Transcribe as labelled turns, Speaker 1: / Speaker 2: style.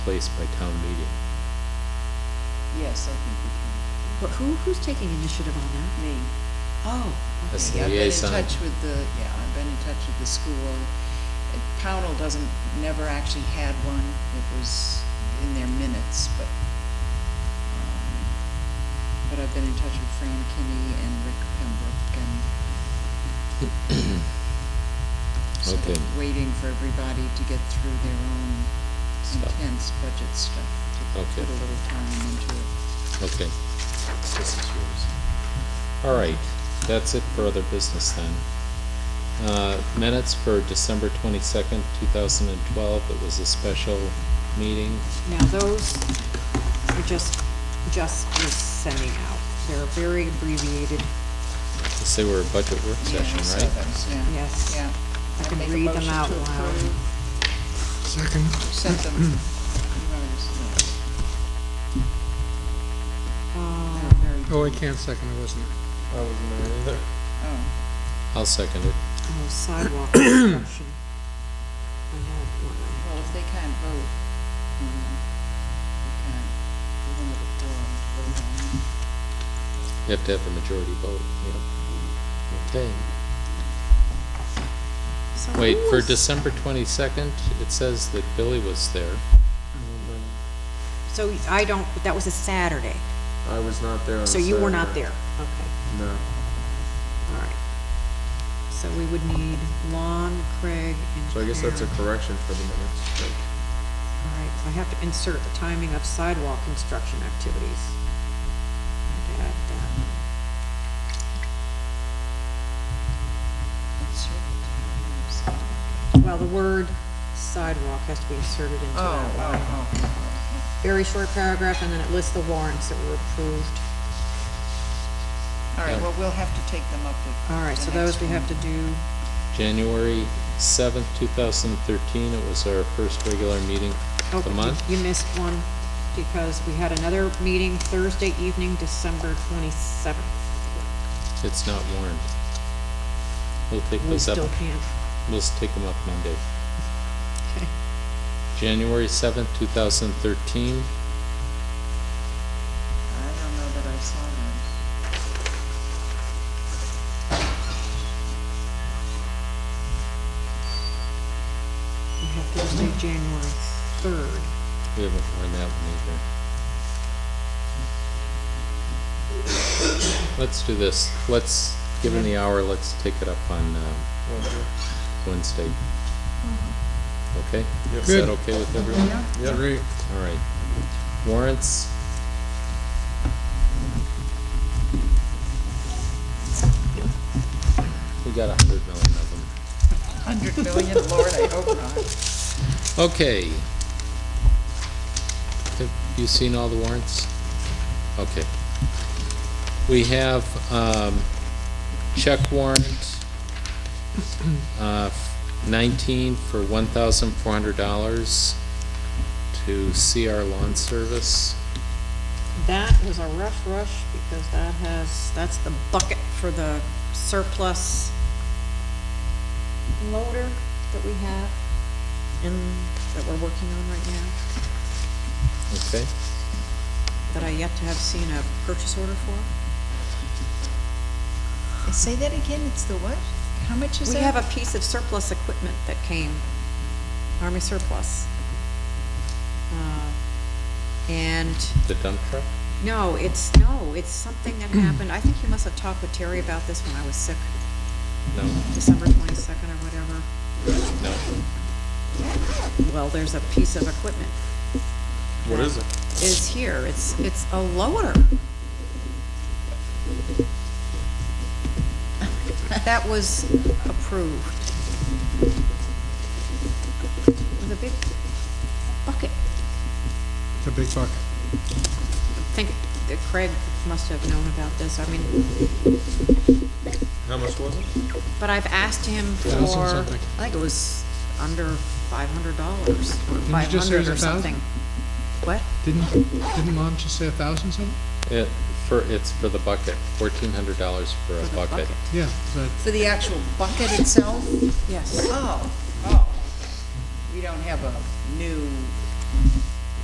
Speaker 1: placed by town meeting.
Speaker 2: Yes, I think
Speaker 3: But who, who's taking initiative on that?
Speaker 2: we can, me.
Speaker 3: Oh,
Speaker 1: That's
Speaker 2: Okay,
Speaker 1: the liaison.
Speaker 2: I've been in touch with the, yeah, I've been in touch with the school. Uh, Pownell doesn't, never actually had one, it was in their minutes, but, um, but I've been in touch with Fran Kinney and Rick Pembrook and. sort of
Speaker 1: Okay.
Speaker 2: Waiting for everybody to get through their own
Speaker 1: Stuff.
Speaker 2: intense budget stuff, to
Speaker 1: Okay.
Speaker 2: put a little time into it.
Speaker 1: Okay. This is yours. All right, that's it for other business then. Uh, Minutes for December twenty-second, two thousand and twelve, it was a special meeting.
Speaker 4: Now, those are just, just was sending out. They're very abbreviated.
Speaker 1: Yes, They were a budget work
Speaker 2: Yeah,
Speaker 1: session,
Speaker 2: I saw
Speaker 1: right?
Speaker 2: those, yeah.
Speaker 4: Yes.
Speaker 2: Yeah.
Speaker 4: I
Speaker 2: I'd
Speaker 4: can
Speaker 2: make a
Speaker 4: read them
Speaker 2: motion to
Speaker 4: out loud.
Speaker 2: approve.
Speaker 5: Second.
Speaker 2: Sent them. You already said that.
Speaker 4: Um,
Speaker 2: They're very-
Speaker 5: Oh, I can't second, I wasn't. I wasn't there either.
Speaker 2: Oh,
Speaker 1: I'll second it.
Speaker 4: oh, Sidewalk construction. I had one.
Speaker 2: well, if they can't vote, on them, they can't, they don't have a quorum to vote on them.
Speaker 1: You have to have a majority vote, yeah. Okay.
Speaker 4: So
Speaker 1: Wait,
Speaker 4: who
Speaker 1: for
Speaker 4: was-
Speaker 1: December twenty-second, it says that Billy was there.
Speaker 4: So I don't, that was a Saturday,
Speaker 6: I was not there on
Speaker 4: so you were not
Speaker 6: Saturday.
Speaker 4: there. Okay,
Speaker 6: No.
Speaker 4: all right. So we would need Lon, Craig, and
Speaker 6: So I guess that's a
Speaker 4: Karen.
Speaker 6: correction for the minutes. right?
Speaker 4: All right, so I have to insert the timing of sidewalk construction activities. I had to add that.
Speaker 2: That's your-
Speaker 4: Well, the word sidewalk has to be inserted into
Speaker 2: Oh, oh,
Speaker 4: that line.
Speaker 2: oh, oh,
Speaker 4: Very short paragraph, and then it lists the warrants that were approved.
Speaker 2: oh. All right, well, we'll have to take them up with.
Speaker 4: All right,
Speaker 2: the
Speaker 4: so
Speaker 2: next
Speaker 4: those we have to
Speaker 2: one.
Speaker 4: do,
Speaker 1: January seventh, two thousand and thirteen, it was our first regular meeting
Speaker 4: oh,
Speaker 1: of the month.
Speaker 4: you missed one, because we had another meeting Thursday evening, December twenty-seventh.
Speaker 1: It's not warned. We'll take
Speaker 4: We
Speaker 1: those up,
Speaker 4: still can't,
Speaker 1: we'll take them up Monday.
Speaker 4: okay.
Speaker 1: January seventh, two thousand thirteen,
Speaker 2: I don't know that I saw those.
Speaker 4: We have Thursday, January third.
Speaker 1: we haven't warned that one either. Let's do this, let's, given the hour, let's take it up on, um, Wednesday. Okay? Is that
Speaker 5: Good.
Speaker 1: okay with everyone?
Speaker 6: Yeah.
Speaker 5: Agree.
Speaker 1: All right. Warrants, we got a hundred million of them.
Speaker 2: Hundred million, Lord, I hope not.
Speaker 1: Okay. Have you seen all the warrants? Okay. We have, um, check warrant, uh, nineteen for one thousand four hundred dollars to CR Lawn Service.
Speaker 4: That was a rough rush, because that has, that's the bucket for the surplus loader that we have and that we're working on right now,
Speaker 1: Okay,
Speaker 4: that I yet to have seen a purchase order for.
Speaker 2: Say that again, it's the what? How much is
Speaker 4: We
Speaker 2: that?
Speaker 4: have a piece of surplus equipment that came, Army surplus. Uh, And
Speaker 1: the dump truck?
Speaker 4: No, it's, no, it's something that happened, I think you must have talked with Terry about this when I was sick,
Speaker 1: No,
Speaker 4: December twenty-second or whatever.
Speaker 1: no.
Speaker 4: Well, there's a piece of equipment
Speaker 6: What is it?
Speaker 4: is here, it's, it's a loader. That was approved. With a big bucket.
Speaker 5: It's a big buck.
Speaker 4: I think that Craig must have known about this, I mean,
Speaker 6: How much was it?
Speaker 4: But I've asked him
Speaker 5: Thousand
Speaker 4: for, I
Speaker 5: something.
Speaker 4: think it was under five hundred dollars, or
Speaker 5: you
Speaker 4: five
Speaker 5: just say it
Speaker 4: hundred
Speaker 5: was
Speaker 4: or
Speaker 5: a thousand?
Speaker 4: something. What?
Speaker 5: Didn't, didn't mom just say a thousand something?
Speaker 1: It, for, it's for the bucket, fourteen hundred dollars for a
Speaker 4: For the
Speaker 1: bucket.
Speaker 5: Yeah, but
Speaker 2: For the actual bucket itself?
Speaker 4: Yes.
Speaker 2: Oh, oh. We don't have a new